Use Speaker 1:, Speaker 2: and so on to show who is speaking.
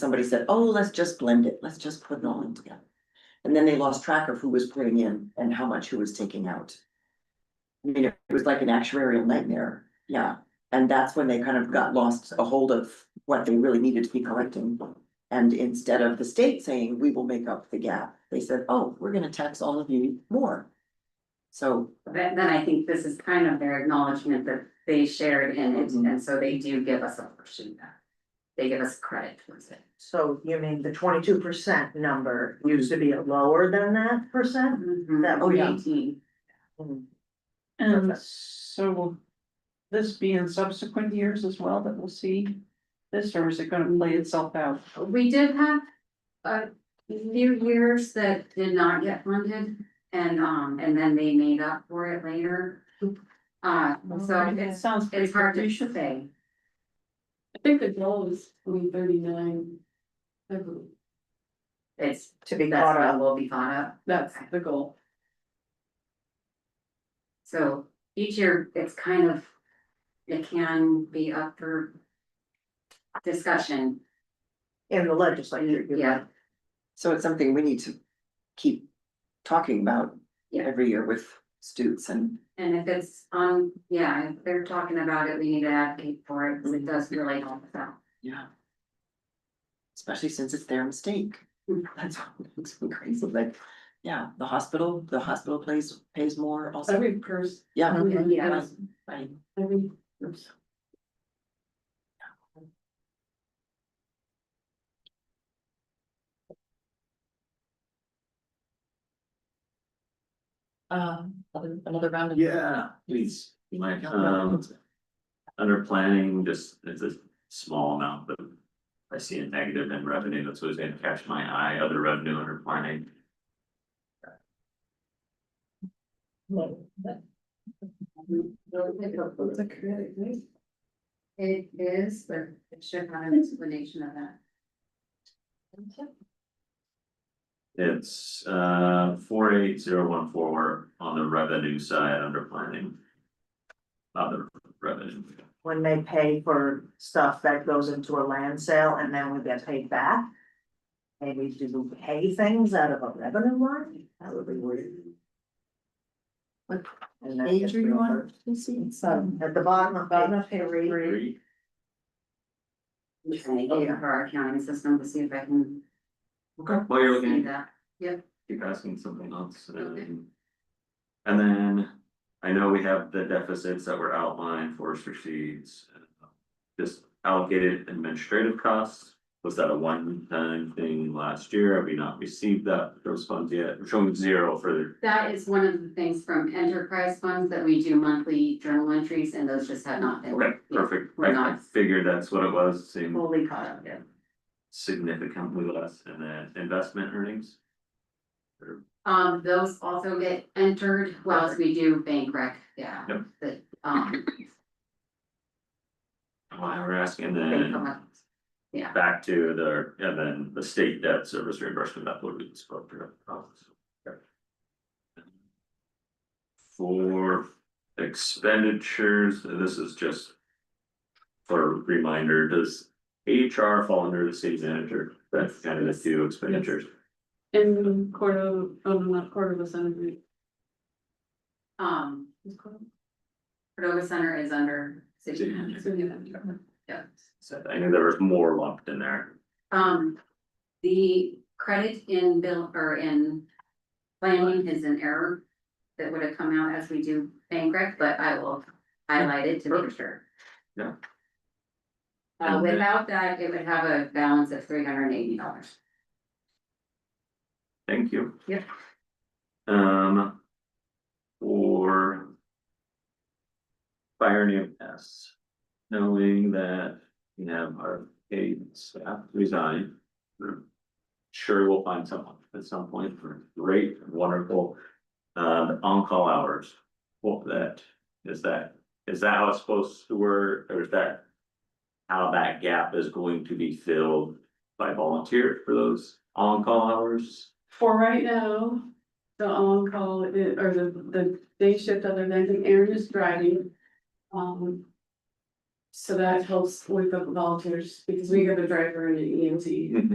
Speaker 1: somebody said, oh, let's just blend it, let's just put it all in together. And then they lost track of who was putting in and how much who was taking out. I mean, it was like an actuarial nightmare, yeah, and that's when they kind of got lost a hold of what they really needed to be collecting. And instead of the state saying, we will make up the gap, they said, oh, we're gonna tax all of you more. So
Speaker 2: Then, then I think this is kind of their acknowledgement that they shared in it,
Speaker 3: Mm-hmm.
Speaker 2: and so they do give us a portion back. They give us credit towards it.
Speaker 3: So you mean the twenty-two percent number used to be lower than that percent? That
Speaker 2: Oh,
Speaker 3: would be-
Speaker 2: eighteen.
Speaker 4: And
Speaker 3: Perfect.
Speaker 4: so will this be in subsequent years as well that we'll see this, or is it gonna lay itself out?
Speaker 2: We did have a few years that did not get funded and um, and then they made up for it later. Uh,
Speaker 3: Oh,
Speaker 2: so
Speaker 4: It
Speaker 2: it's,
Speaker 4: sounds pretty
Speaker 2: it's hard to
Speaker 4: capricious.
Speaker 2: say.
Speaker 5: I think the goal is twenty thirty-nine. I believe.
Speaker 2: It's,
Speaker 3: To be
Speaker 2: that's
Speaker 3: caught
Speaker 2: what
Speaker 3: up,
Speaker 2: will be caught up.
Speaker 5: That's the goal.
Speaker 2: So each year, it's kind of, it can be up for discussion.
Speaker 3: in the legislature, you
Speaker 2: Yeah.
Speaker 3: know,
Speaker 1: So it's something we need to keep talking about
Speaker 2: Yeah.
Speaker 1: every year with Stutes and
Speaker 2: And if it's on, yeah, if they're talking about it, we need to advocate for it, because it does really help us out.
Speaker 1: yeah. Especially since it's their mistake.
Speaker 2: Mm.
Speaker 1: That's what makes me crazy, like, yeah, the hospital, the hospital pays pays more also,
Speaker 5: Every person,
Speaker 1: yeah.
Speaker 2: Yeah.
Speaker 1: I-
Speaker 5: every,
Speaker 1: Um, another round
Speaker 6: Yeah, please. Um, under planning, just, it's a small amount, but I see a negative in revenue, that's what's gonna catch my eye, other revenue under planning.
Speaker 2: It is, but it should have an explanation of that.
Speaker 6: It's, uh, four eight zero one four on the revenue side under planning. Other revenue.
Speaker 3: when they pay for stuff that goes into a land sale and then we get paid back. Maybe do we pay things out of a revenue line? That would be weird.
Speaker 1: What
Speaker 3: And that
Speaker 1: page
Speaker 3: gets
Speaker 1: are you on?
Speaker 3: reimbursed.
Speaker 1: You see,
Speaker 3: So at the bottom of.
Speaker 4: Bottom of
Speaker 3: page
Speaker 4: page
Speaker 3: three,
Speaker 4: three.
Speaker 6: Three,
Speaker 2: I'm trying to get it for our accounting system to see if I can
Speaker 6: okay, while you're
Speaker 2: see
Speaker 6: looking,
Speaker 2: that.
Speaker 6: keep asking something else,
Speaker 2: Okay.
Speaker 6: um. And then, I know we have the deficits that were outlined, forest receipts. uh, Just allocated administrative costs, was that a one-time thing last year, have we not received that, those funds yet, we're showing zero for
Speaker 2: That is one of the things from enterprise funds that we do monthly journal entries, and those just have not
Speaker 6: the,
Speaker 2: been.
Speaker 6: okay, perfect,
Speaker 2: We're
Speaker 6: I I
Speaker 2: not.
Speaker 6: figured that's what it was, seemed
Speaker 2: Fully caught up yet.
Speaker 6: significantly less, and then investment earnings.
Speaker 2: Um, those also get entered, well, as we do bank rec, yeah.
Speaker 6: Yep.
Speaker 2: The, um,
Speaker 6: Why we're asking, and
Speaker 2: bank
Speaker 6: then
Speaker 2: collect- yeah,
Speaker 6: back to the, and then the state debt service reimbursement, that would be spoke to. For expenditures, and this is just. For reminder, does HR fall under the city manager? That's kind of the few expenditures.
Speaker 5: in quarter, oh, no, not quarter of a century.
Speaker 2: um,
Speaker 5: It's quarter-
Speaker 2: Cordova Center is under city.
Speaker 6: City.
Speaker 5: it's in the-
Speaker 2: Yeah.
Speaker 6: So I knew there was more lumped in there.
Speaker 2: Um, the credit in bill or in planning is an error that would have come out as we do bank rec, but I will highlight it to make sure.
Speaker 6: Yeah.
Speaker 2: Uh,
Speaker 6: And then-
Speaker 2: without that, it would have a balance of three hundred and eighty dollars.
Speaker 6: Thank you.
Speaker 2: Yep.
Speaker 6: Um. Or. Fire new S. Knowing that we have our paid staff resign. we're Sure we'll find someone at some point for great, wonderful, uh, the on-call hours. What that, is that, is that how it's supposed to work, or is that? How that gap is going to be filled by volunteers for those on-call hours?
Speaker 5: For right now, the on-call, i- or the, the day shift other than Aaron is driving. Um. So that helps with the volunteers, because we have a driver E and an EMT.